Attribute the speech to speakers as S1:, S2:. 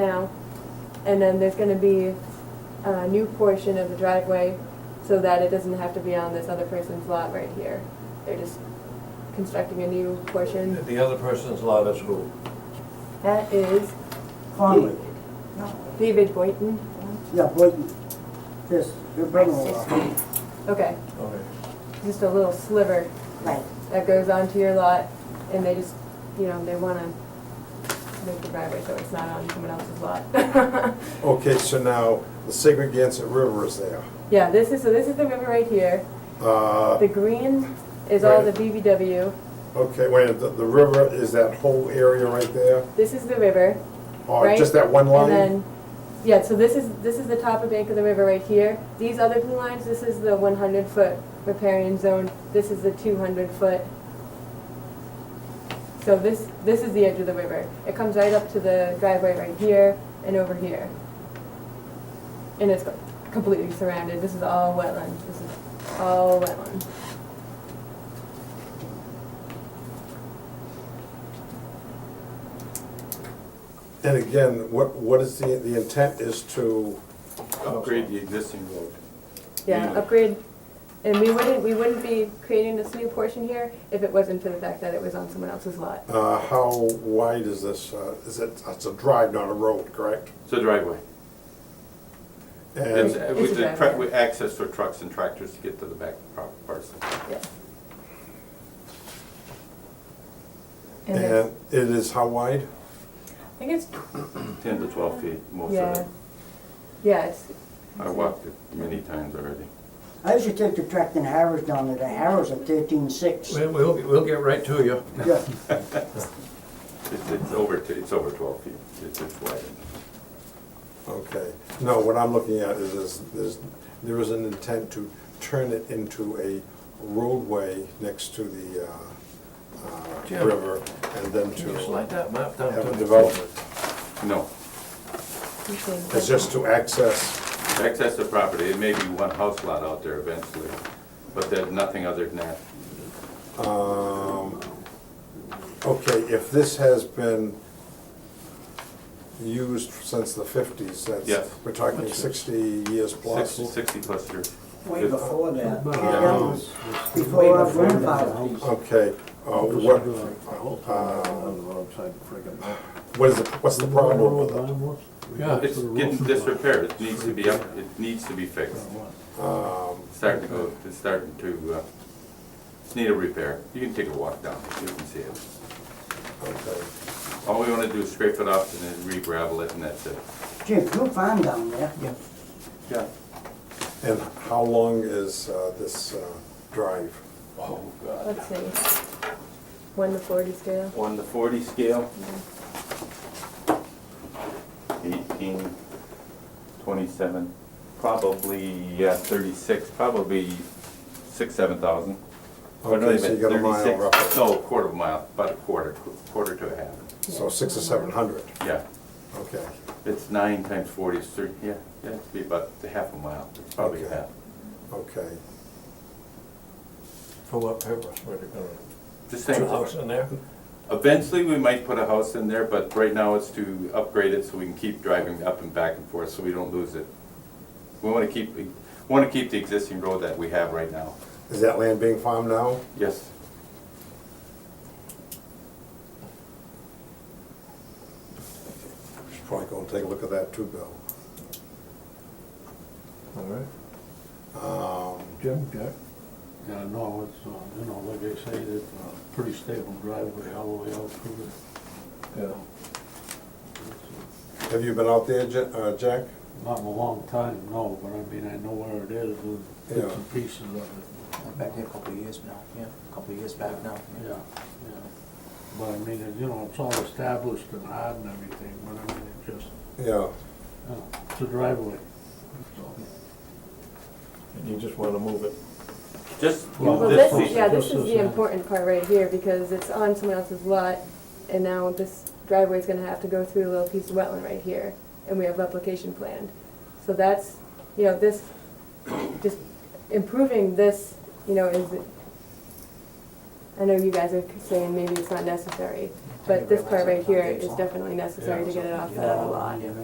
S1: And then there's gonna be a new portion of the driveway so that it doesn't have to be on this other person's lot right here. They're just constructing a new portion.
S2: The other person's lot is who?
S1: That is
S3: Conway.
S1: David Boynton.
S3: Yeah, Boynton. Yes, your brother-in-law.
S1: Okay,
S2: Okay.
S1: just a little sliver
S4: Right.
S1: that goes onto your lot and they just, you know, they wanna make the driveway so it's not on someone else's lot.
S5: Okay, so now the Segregated River is there.
S1: Yeah, this is, so this is the river right here.
S5: Uh,
S1: The green is all the
S5: Right.
S1: BBW.
S5: Okay, wait, the, the river is that whole area right there?
S1: This is the river.
S5: Or
S1: Right.
S5: just that one
S1: And
S5: line?
S1: then, yeah, so this is, this is the top of bank of the river right here. These other blue lines, this is the one hundred foot riparian zone, this is the two hundred foot. So this, this is the edge of the river. It comes right up to the driveway right here and over here. And it's completely surrounded, this is all wetland, this is all wetland.
S5: And again, what, what is the, the intent is to,
S6: upgrade the existing road.
S1: Yeah,
S6: Really?
S1: upgrade, and we wouldn't, we wouldn't be creating this new portion here if it wasn't for the fact that it was on someone else's lot.
S5: uh, how wide is this? Uh, Is it, it's a drive, not a road, correct?
S6: It's a driveway. It's,
S5: And,
S6: uh,
S1: It's a
S6: with the, tra-
S1: driveway.
S6: with access for trucks and tractors to get to the back par- parcel.
S1: Yes. And there's-
S5: and it is how wide?
S1: I think it's,
S6: Ten to twelve feet, most of
S1: yeah.
S6: it. Oh,
S1: Yeah, it's,
S6: I walked it many times already.
S3: I used to take the tractor and harrows down there, the harrows are thirteen-six.
S2: We'll, we'll, we'll get right to you.
S3: Yeah,
S6: It's, it's over, t- it's over twelve feet. It's, it's wide.
S5: Okay, no, what I'm looking at is, is, is there is an intent to turn it into a roadway next to the, uh, uh,
S2: Jim.
S5: river, and then
S2: Can you
S5: to
S2: slide that map down
S5: have
S2: to
S5: a
S2: the
S5: development.
S6: No,
S1: it's in-
S5: It's just to access,
S6: access to property, it may be one house lot out there eventually, but there's nothing other than that.
S5: um, okay, if this has been used since the fifties,
S6: Yes.
S5: that's, we're talking sixty years plus.
S6: Sixty, sixty plus years.
S7: Way before that.
S3: that was before our grandfather.
S5: Okay, uh, what, what is, the- what's the problem with it?
S6: It's getting disrepaired, it needs to be up, it needs to be fixed.
S5: Um,
S6: It's Starting to go, it's starting to, uh, it's need a repair. You can take a walk down, you can see it.
S5: okay.
S6: All we wanna do is scrape it up and then re-gravel it and that's it.
S3: Jim, you'll find down there.
S6: Yeah.
S5: And how long is uh, this uh, drive?
S6: Oh, God.
S1: Let's see. One to forty scale.
S6: On the forty scale, eighteen, twenty-seven, probably, yeah, thirty-six, probably six, seven thousand. Or no,
S5: Okay, so you got a mile
S6: 36
S5: roughly,
S6: No, quarter of a mile, about a quarter, qu- quarter to a half,
S5: so six or seven hundred,
S6: yeah.
S5: okay.
S6: It's nine times forty is thirty, yeah, yeah, it'd be about a half a mile, it's probably a
S5: Okay.
S6: half.
S5: Okay,
S2: For what purpose, where they gonna,
S6: Just
S2: two
S6: saying,
S2: houses in there?
S6: eventually we might put a house in there, but right now it's to upgrade it so we can keep driving up and back and forth, so we don't lose it. We wanna keep, we wanna keep the existing road that we have right now,
S5: is that land being farmed now?
S6: yes.
S5: Should probably go and take a look at that too, Bill.
S2: All right.
S5: Um,
S8: Jim, Jack? Yeah, no, it's, uh, you know, like I say, it's a pretty stable driveway all the way out through the,
S2: Yeah.
S5: Have you been out there, Ja- uh, Jack?
S8: not in a long time, no, but I mean, I know where it is, and bits
S5: Yeah.
S8: and pieces of it.
S7: Went back there a couple of years now, yeah, a couple of years back now.
S8: Yeah, yeah. But I mean, it- you know, it's all established and hard and everything, but I mean, it just,
S5: Yeah,
S8: you know, it's a driveway, that's all.
S2: And you just wanna move it.
S6: Just,
S8: Well,
S1: Well,
S6: this,
S8: this
S1: this,
S8: is-
S1: yeah, this
S8: this
S1: is
S8: is
S1: the
S8: nice.
S1: important part right here because it's on someone else's lot and now this driveway's gonna have to go through a little piece of wetland right here and we have replication planned. So that's, you know, this, just improving this, you know, is, I know you guys are saying maybe it's not necessary, but this part right here is definitely necessary to get it off that other lot.
S7: Yeah.